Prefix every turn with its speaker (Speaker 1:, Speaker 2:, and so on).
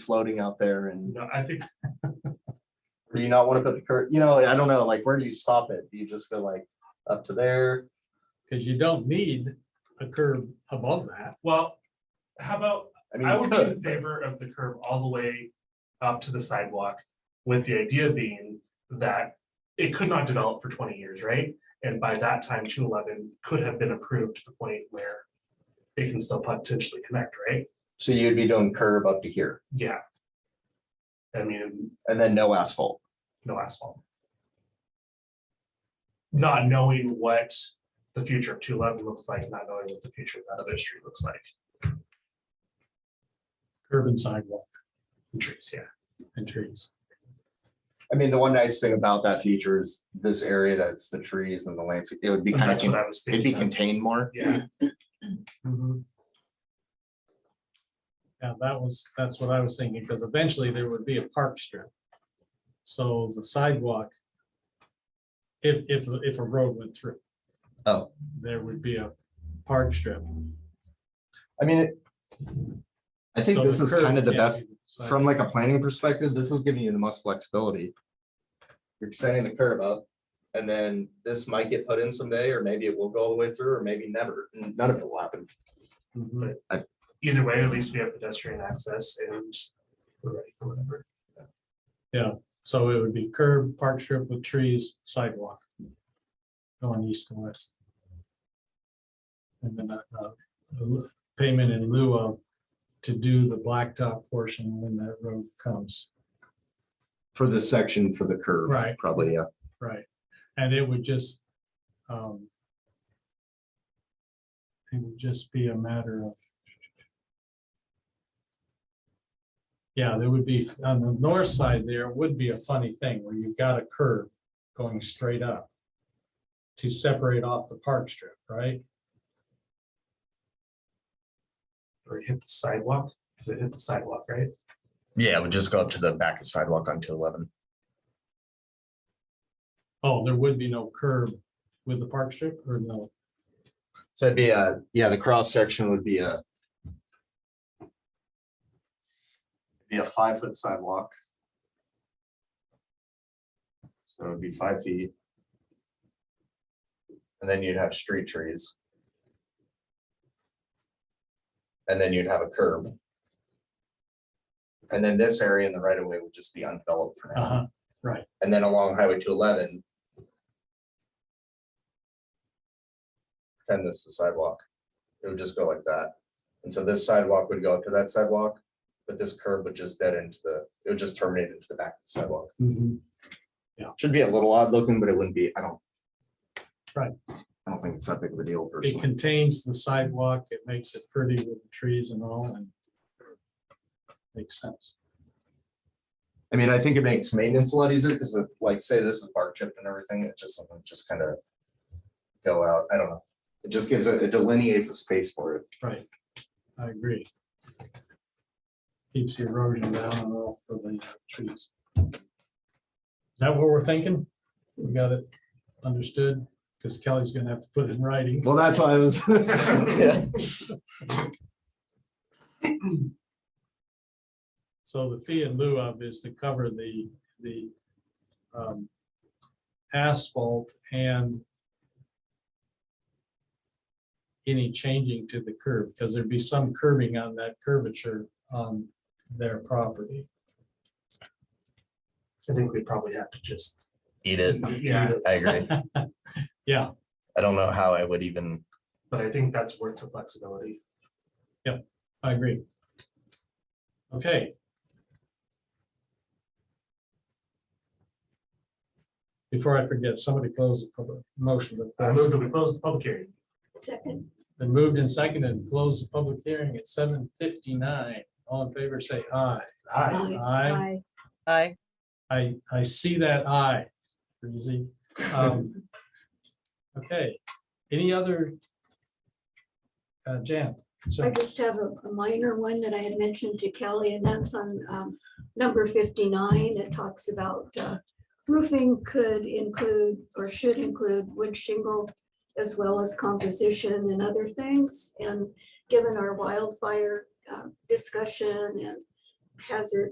Speaker 1: floating out there and,
Speaker 2: No, I think,
Speaker 1: or do you not want to put the curtain, you know, I don't know, like, where do you stop it? Do you just go like up to there?
Speaker 3: Cause you don't need a curb above that.
Speaker 2: well, how about,
Speaker 1: I mean,
Speaker 2: I
Speaker 1: you
Speaker 2: would be in
Speaker 1: could,
Speaker 2: favor of the curb all the way up to the sidewalk. With the idea being that it could not develop for twenty years, right? And by that time, two eleven could have been approved to the point where. It can still potentially connect, right?
Speaker 1: so you'd be doing curb up to here
Speaker 2: Yeah. I mean,
Speaker 1: and then no asphalt.
Speaker 2: no asphalt. Not knowing what the future of two eleven looks like, not knowing what the future of that other street looks like,
Speaker 3: curb and sidewalk
Speaker 2: and trees, yeah.
Speaker 3: and trees.
Speaker 1: I mean, the one nice thing about that feature is this area that's the trees and the landscape, it would be
Speaker 2: And
Speaker 1: kind of,
Speaker 2: That's what
Speaker 1: con-
Speaker 2: I was
Speaker 1: it'd be
Speaker 2: thinking. of.
Speaker 1: contained more.
Speaker 2: Yeah. Mhm.
Speaker 3: Yeah, that was, that's what I was thinking, because eventually there would be a park strip. So the sidewalk. If, if, if a road went through.
Speaker 1: Oh.
Speaker 3: There would be a park strip.
Speaker 1: I mean, it- I think
Speaker 3: So
Speaker 1: this
Speaker 3: the
Speaker 1: is
Speaker 3: curb
Speaker 1: kind of the
Speaker 3: can't
Speaker 1: best,
Speaker 3: be the
Speaker 1: from like a planning perspective, this is giving you the most flexibility. You're extending the curb up and then this might get put in someday, or maybe it will go all the way through, or maybe never. None of it will happen.
Speaker 3: sidewalk. Mhm.
Speaker 2: Either way, at least we have pedestrian access and. we're ready for whatever.
Speaker 3: So it would be curb, park strip with trees, sidewalk. Going east and west. And then uh, uh, payment in lieu of to do the blacktop portion when that road comes.
Speaker 1: For this section for the curb,
Speaker 3: Right,
Speaker 1: probably, yeah.
Speaker 3: right. And it would just um, it would just be a matter of yeah, there would be on the north side there would be a funny thing where you've got a curve going straight up to separate off the park strip, right?
Speaker 2: Or hit the sidewalk, because it hit the sidewalk, right?
Speaker 1: Yeah, it would just go up to the back of sidewalk on two eleven.
Speaker 3: Oh, there would be no curb with the park strip or no?
Speaker 1: So it'd be a, yeah, the cross section would be a. Be a five foot sidewalk. So it'd be five feet. And then you'd have street trees. And then you'd have a curb. And then this area in the right of way would just be undeveloped for now.
Speaker 3: Uh-huh.
Speaker 1: And then along Highway two eleven. And this is sidewalk. It would just go like that. And so this sidewalk would go up to that sidewalk, but this curb would just dead into the, it would just terminate into the back of the sidewalk.
Speaker 3: Mhm.
Speaker 1: Should be a little odd looking, but it wouldn't be, I don't.
Speaker 3: Right.
Speaker 1: I don't think it's that big of a deal
Speaker 3: It
Speaker 1: personally.
Speaker 3: contains the sidewalk. It makes it pretty with the trees and all and makes sense.
Speaker 1: I mean, I think it makes maintenance a lot easier because like, say this is bark chipped and everything, it's just something just kind of. Go out, I don't know. It just gives it, it delineates a space for it.
Speaker 3: Right, I agree. Keeps the erosion down and all for the trees. Is that what we're thinking? We got it understood, because Kelly's gonna have to put it in writing.
Speaker 1: Well, that's why I was. Yeah.
Speaker 3: So the fee in lieu of is to cover the, the um, asphalt and any changing to the curb, because there'd be some curbing on that curvature on their property.
Speaker 2: I think we probably have to just,
Speaker 1: Eat it.
Speaker 2: yeah,
Speaker 1: I agree.
Speaker 3: Yeah,
Speaker 1: I don't know how I would even.
Speaker 2: but I think that's worth the flexibility.
Speaker 3: I agree. Okay. Before I forget, somebody close the public motion. to
Speaker 2: Uh, I
Speaker 3: close.
Speaker 2: moved to close the public hearing.
Speaker 4: Second,
Speaker 3: Been moved and seconded, and close the public hearing at seven fifty-nine. All in favor, say aye.
Speaker 2: Aye.
Speaker 4: aye.
Speaker 3: Aye.
Speaker 4: Aye.
Speaker 5: Aye.
Speaker 3: I, I see that aye. Breezy. Um, Okay, any other? Uh, Jan? so-
Speaker 4: I just have a a minor one that I had mentioned to Kelly, and that's on um, number fifty-nine. It talks about uh, roofing could include or should include wood shingle as well as composition and other things. And given our wildfire uh, discussion and hazard